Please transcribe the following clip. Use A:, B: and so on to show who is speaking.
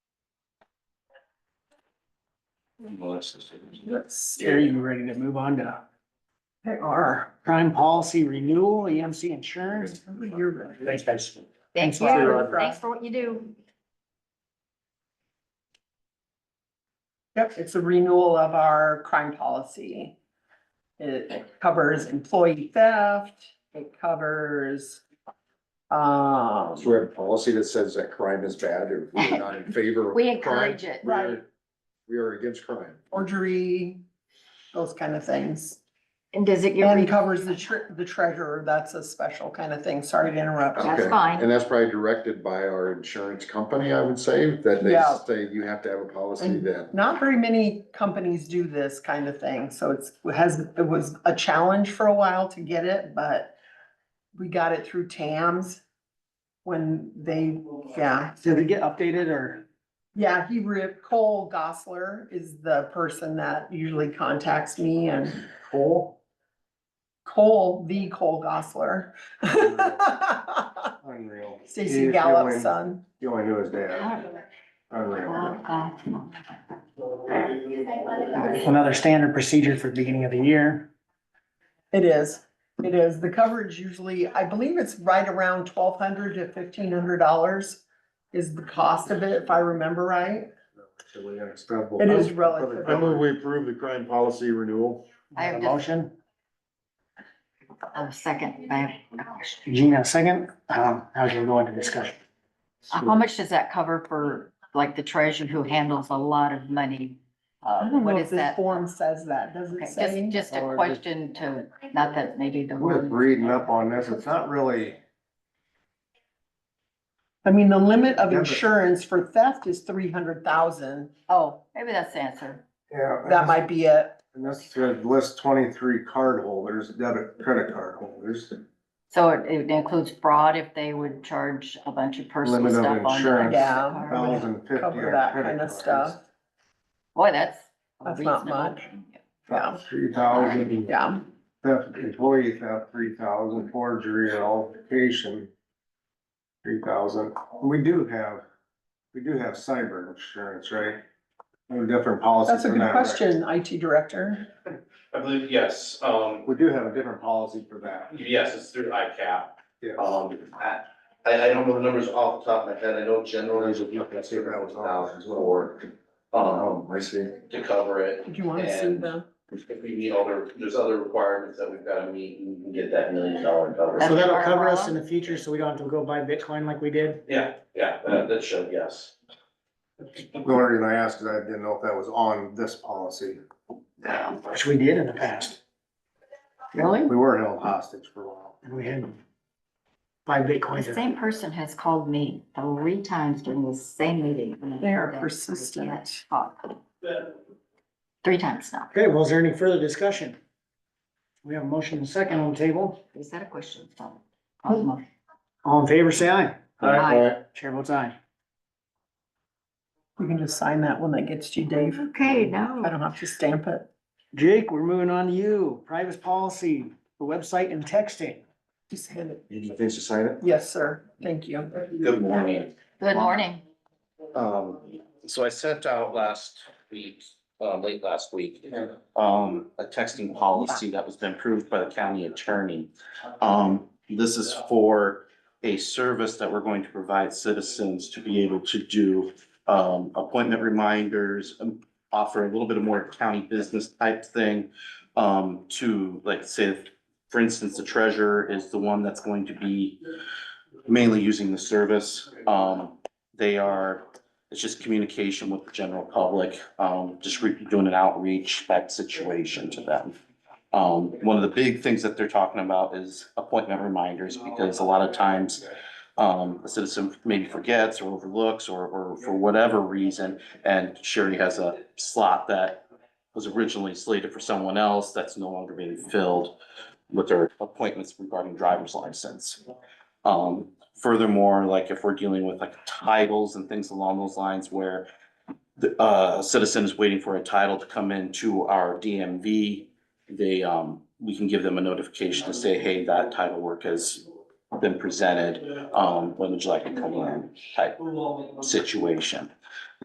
A: Yes. Are you ready to move on to our crime policy renewal, EMC insurance? You're ready. Thanks, guys.
B: Thanks,
A: Thanks,
B: Rob.
A: Rob.
B: Thanks for what you do.
C: Yep, it's a renewal of our crime policy. It covers employee theft, it covers. Um,
D: So we have a policy that says that crime is bad or we're not in favor of.
B: We
D: crime.
B: encourage it.
D: We are- We are against crime.
C: forgery, those kind of things.
B: And does it get?
C: And
B: re-
C: covers the tre- the treasurer, that's a special kind of thing, sorry to interrupt.
B: That's
D: Okay.
B: fine.
D: And that's probably directed by our insurance company, I would say, that they
C: Yeah.
D: say you have to have a policy
C: And-
D: that,
C: Not very many companies do this kind of thing, so it's, it has, it was a challenge for a while to get it, but we got it through TAMS when they, yeah.
A: Did it get updated or?
C: Yeah, he re Cole Gosler is the person that usually contacts me and
A: Cool.
C: Cole, the Cole Gosler.
D: Unreal.
C: Stacy Gallup's son.
D: You only knew his dad.
B: Oh,
D: Unreal.
B: God.
A: Another standard procedure for the beginning of the year.
C: It is, it is. The coverage usually, I believe it's right around twelve hundred to fifteen hundred dollars is the cost of it, if I remember right. It is relative.
D: I move Oh. we approve the crime policy renewal.
B: I have
A: A
B: just-
A: Motion,
B: Oh, second, Uh, I
A: Gina second. Um, how can we go into discussion?
B: have- how much does that cover for, like, the treasurer who handles a lot of money?
C: I
B: Uh,
C: don't know
B: what
C: if
B: is
C: this
B: that?
C: form says that, does it
B: Okay,
C: say?
B: Just, just a
D: or-
B: question to, not that maybe the
D: We're
B: word.
D: reading up on this. It's not really,
C: I mean, the limit of
D: Yeah, but-
C: insurance for theft is three hundred thousand.
B: Oh, maybe that's the answer.
D: yeah.
C: That might be it.
D: And this should list twenty-three card holders, debit, credit card holders.
B: So it, it includes fraud if they would charge a bunch of personal
D: Limit of
B: stuff on. the
D: insurance,
C: Yeah.
B: card.
D: Thousand fifty
C: cover
D: are
C: that
D: credit
C: kind of
D: cards.
C: stuff.
B: Boy, that's.
C: That's not
B: reasonable.
C: much. Yeah,
D: Three thousand,
C: yeah.
D: theft, employee theft, three thousand, forgery and altercation, three thousand. We do have, we do have cyber insurance, right? We have a different policy.
C: That's a
D: for
C: good
D: that, right?
C: question, IT director.
E: I believe, yes, um,
D: We do have a different policy for that.
E: yes, it's through ICAP.
D: Yeah.
E: Um, I, I I don't know the numbers off the top of my head, I know generally
D: There's a- you can see that was
E: thousand for, um,
D: Oh, I see.
E: to cover it.
C: Did you want to see the?
E: If we meet all the, there's other requirements that we've gotta meet, and we can get that million dollar
A: So
E: cover.
A: that'll cover us in the future, so we don't have to go buy Bitcoin like we did.
E: Yeah, yeah, that, that should, yes.
D: The only reason I asked is I didn't know if that was on this policy.
A: Which we did in the past.
B: Really?
D: We were held hostage for a while.
A: And we had five Bitcoins.
B: The same person has called me three times during the same meeting. and I
C: They are
B: said, "I
C: persistent."
B: can't talk." Three times now.
A: Okay, well, is there any further discussion? We have a motion and a second on the table.
B: Is that a question? So, I'll move.
A: All in favor, say aye.
B: Aye.
A: Chair votes aye.
C: You can just sign that when that gets to you, Dave.
B: Okay,
C: I
B: no.
C: don't have to stamp it.
A: Jake, we're moving on to you. Privacy policy, the website and texting.
C: Just hand it.
D: You think to sign it?
C: Yes, sir. Thank you.
E: Good morning.
B: Good morning.
E: Um, so I sent out last week, uh, late last week, um, a texting policy that was been approved by the county attorney. Um, this is for a service that we're going to provide citizens to be able to do, um, appointment reminders, um, offer a little bit of more county business type thing, um, to, like, say, for instance, the treasurer is the one that's going to be mainly using the service. Um, they are, it's just communication with the general public, um, just re- doing an outreach type situation to them. Um, one of the big things that they're talking about is appointment reminders, because a lot of times, um, a citizen maybe forgets or overlooks or, or for whatever reason, and Sherry has a slot that was originally slated for someone else that's no longer being filled with their appointments regarding driver's license. Um, Furthermore, like if we're dealing with like titles and things along those lines where the, uh, a citizen is waiting for a title to come into our DMV, they, um, we can give them a notification to say, hey, that title work has been presented. Um, when would you like to come in type situation?